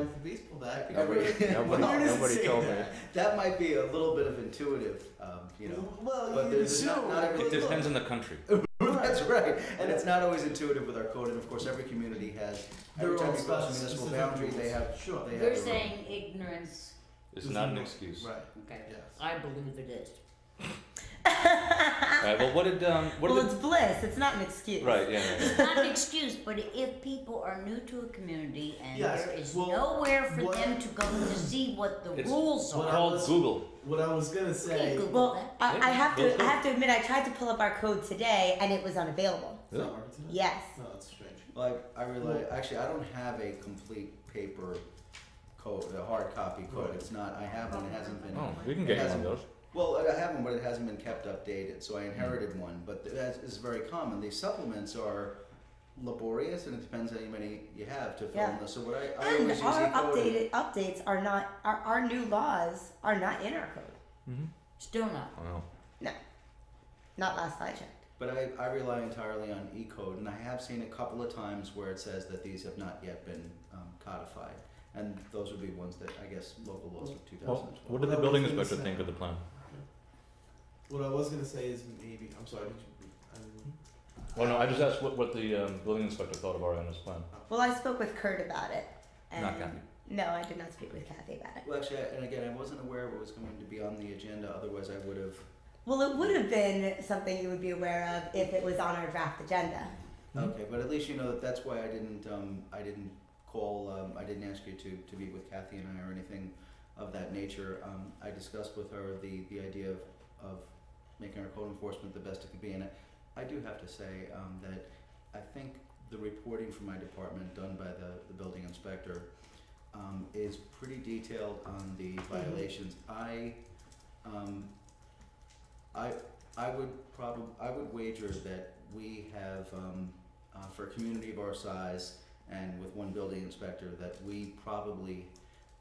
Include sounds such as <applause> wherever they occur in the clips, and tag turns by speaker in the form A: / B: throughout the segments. A: with the beast pull back.
B: Nobody-
C: <laughs>
A: <laughs>
B: nobody-
A: where does it
B: nobody
A: say
B: told me.
A: That? That might be a little bit of intuitive, um, you know. <laughs>
D: Well,
A: but
D: you
A: there's not,
D: assume.
A: not every
C: It depends on the country.
A: That's right, and it's not always intuitive with our code. And of course, every community has every
D: Their
A: time
D: own
A: you cross a
D: spec-
A: municipal
D: specific
A: boundary,
D: rules.
A: they have
D: Sure.
A: They have
E: You're
A: their own-
E: saying ignorance.
C: It's
D: There's
C: not an
D: no-
C: excuse.
D: Right.
E: Okay.
D: Yes.
E: I believe it is.
C: All right. Well, what did um, what
F: well,
C: did
F: it's bliss. It's not an excuse.
C: the, <laughs> right? Yeah. yeah, yeah.
E: It's not an excuse, but if people are new to a community and
D: Yes,
E: there is
D: well,
E: nowhere for
D: what-
E: them to go to see what the
C: It's-
E: rules
D: what
E: are.
D: I
C: Called
D: was-
C: Google.
D: What I was gonna say.
E: Okay, Google.
F: Well, I, I have
C: Let's
F: to.
C: go.
F: I have to admit, I tried to pull up our code today, and it was unavailable.
D: It's not working today.
F: Yes.
D: No, it's strange.
A: Like I really, actually, I don't have a complete paper code, a hard copy code.
D: Right.
A: It's not. I have one. It hasn't been.
C: Oh, we can
A: It
C: get you one of
A: hasn't-
C: those.
A: Well, I have one, but it hasn't been kept updated. So I inherited one, but that is very common. These supplements are laborious, and it depends how many you have to fill
F: Yeah.
A: in this. So what I, I
F: And
A: always use
F: our
A: eCode.
F: updated updates are not. Our, our new laws are not in our code.
C: Mm-hmm.
E: Still not.
C: Wow.
F: No. Not last I checked.
A: But I, I rely entirely on E-code, and I have seen a couple of times where it says that these have not yet been um, codified. And those would be ones that, I guess, local laws of 2012.
C: Well, what did the
D: Well,
C: building
D: it's-
C: inspector think of the plan?
D: What I was gonna say is maybe. I'm sorry. Did you? I didn't-
C: Well, no, I just asked what, what the um, building inspector thought of Ariana's plan.
F: Well, I spoke with Kurt about it. And
C: Not Kathy.
F: No, I did not speak with Kathy about it.
A: Well, actually, I, and again, I wasn't aware of what was going to be on the agenda, otherwise I would have.
F: Well, it would have been something you would be aware of if it was on our draft agenda.
A: Okay, but at least you know that that's why I didn't, um, I didn't call, um, I didn't ask you to, to meet with Kathy and I or anything of that nature. Um, I discussed with her the, the idea of, of making our code enforcement the best it could be. And I, I do have to say um, that I think the reporting from my department done by the, the building inspector um, is pretty detailed on the violations. I, um, I, I would probably, I would wager that we have, um, uh, for a community of our size and with one building inspector, that we probably,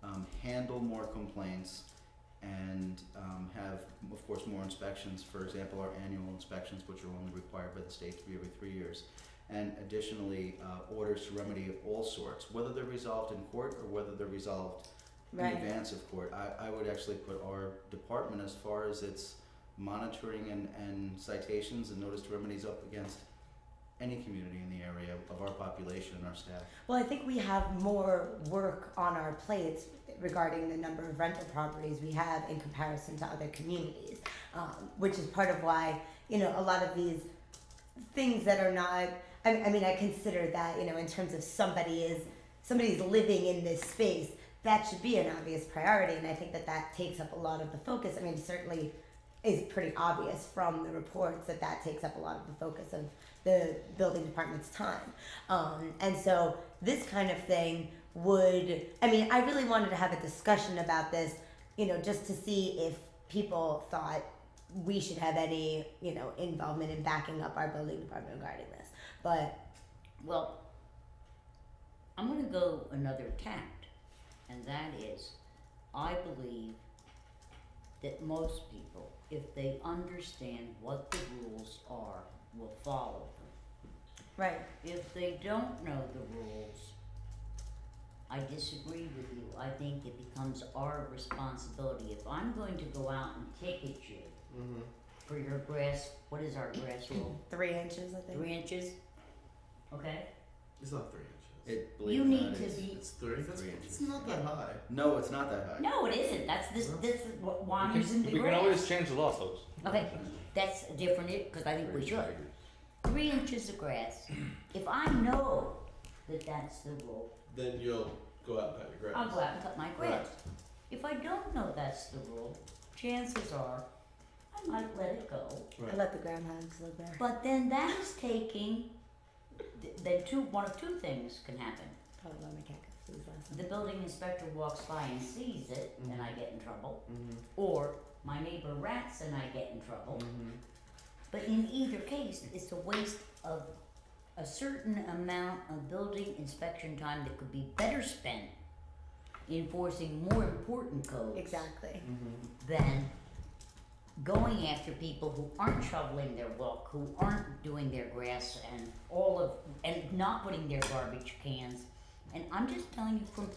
A: um, handle more complaints and, um, have, of course, more inspections. For example, our annual inspections, which are only required by the state to be every three years. And additionally, uh, orders to remedy of all sorts, whether they're resolved in court or whether they're resolved in
F: Right.
A: advance of court. I, I would actually put our department as far as its monitoring and, and citations and notice to remedies up against any community in the area of our population and our staff.
F: Well, I think we have more work on our plates regarding the number of rental properties we have in comparison to other communities, um, which is part of why, you know, a lot of these things that are not, I, I mean, I consider that, you know, in terms of somebody is, somebody's living in this space, that should be an obvious priority. And I think that that takes up a lot of the focus. I mean, certainly is pretty obvious from the reports that that takes up a lot of the focus of the building department's time. Um, and so this kind of thing would, I mean, I really wanted to have a discussion about this, you know, just to see if people thought we should have any, you know, involvement in backing up our building department regarding this. But
E: Well, I'm going to go another tact, and that is I believe that most people, if they understand what the rules are, will follow them.
F: right,
E: If they don't know the rules, I disagree with you. I think it becomes our responsibility. If I'm going to go out and ticket you
A: Mm-hmm.
D: Mhm.
E: for your grass, what is our grass rule?
F: three inches, I think.
E: Three inches? Okay?
D: It's not three inches.
A: It, believe
E: You
A: it or
E: need
A: not,
E: to
A: is-
E: be
D: It's three. That's,
A: Three
D: It's
A: inches.
D: not that high.
A: No, it's not that high.
E: No, it isn't. That's this.
D: Well,
E: This is what why I'm
C: we
E: using
C: can,
E: the
C: we can
E: grass.
C: always change the law, folks.
E: Okay, that's different because I think we should. Three inches of grass. If I know that that's the rule,
D: Then you'll go out and cut your grass.
E: I'll go out and cut my
D: Right.
E: grass. If I don't know that's the rule, chances are I might let it go.
F: I let the groundhogs live there.
E: But then that is taking. th- Then two, one of two things can happen.
F: Probably my cactus last
E: The
F: night.
E: building inspector walks by and sees it, and I get in trouble,
A: Mm-hmm.
D: Mhm.
E: or my neighbor rats and I get in trouble.
D: Mhm.
A: Mm-hmm.
E: But in either case, it's a waste of a certain amount of building inspection time that could be better spent enforcing more important codes
F: Exactly.
A: Mm-hmm.
E: than going after people who aren't shoveling their walk, who aren't doing their grass and all of and not putting their garbage cans. And I'm just telling you from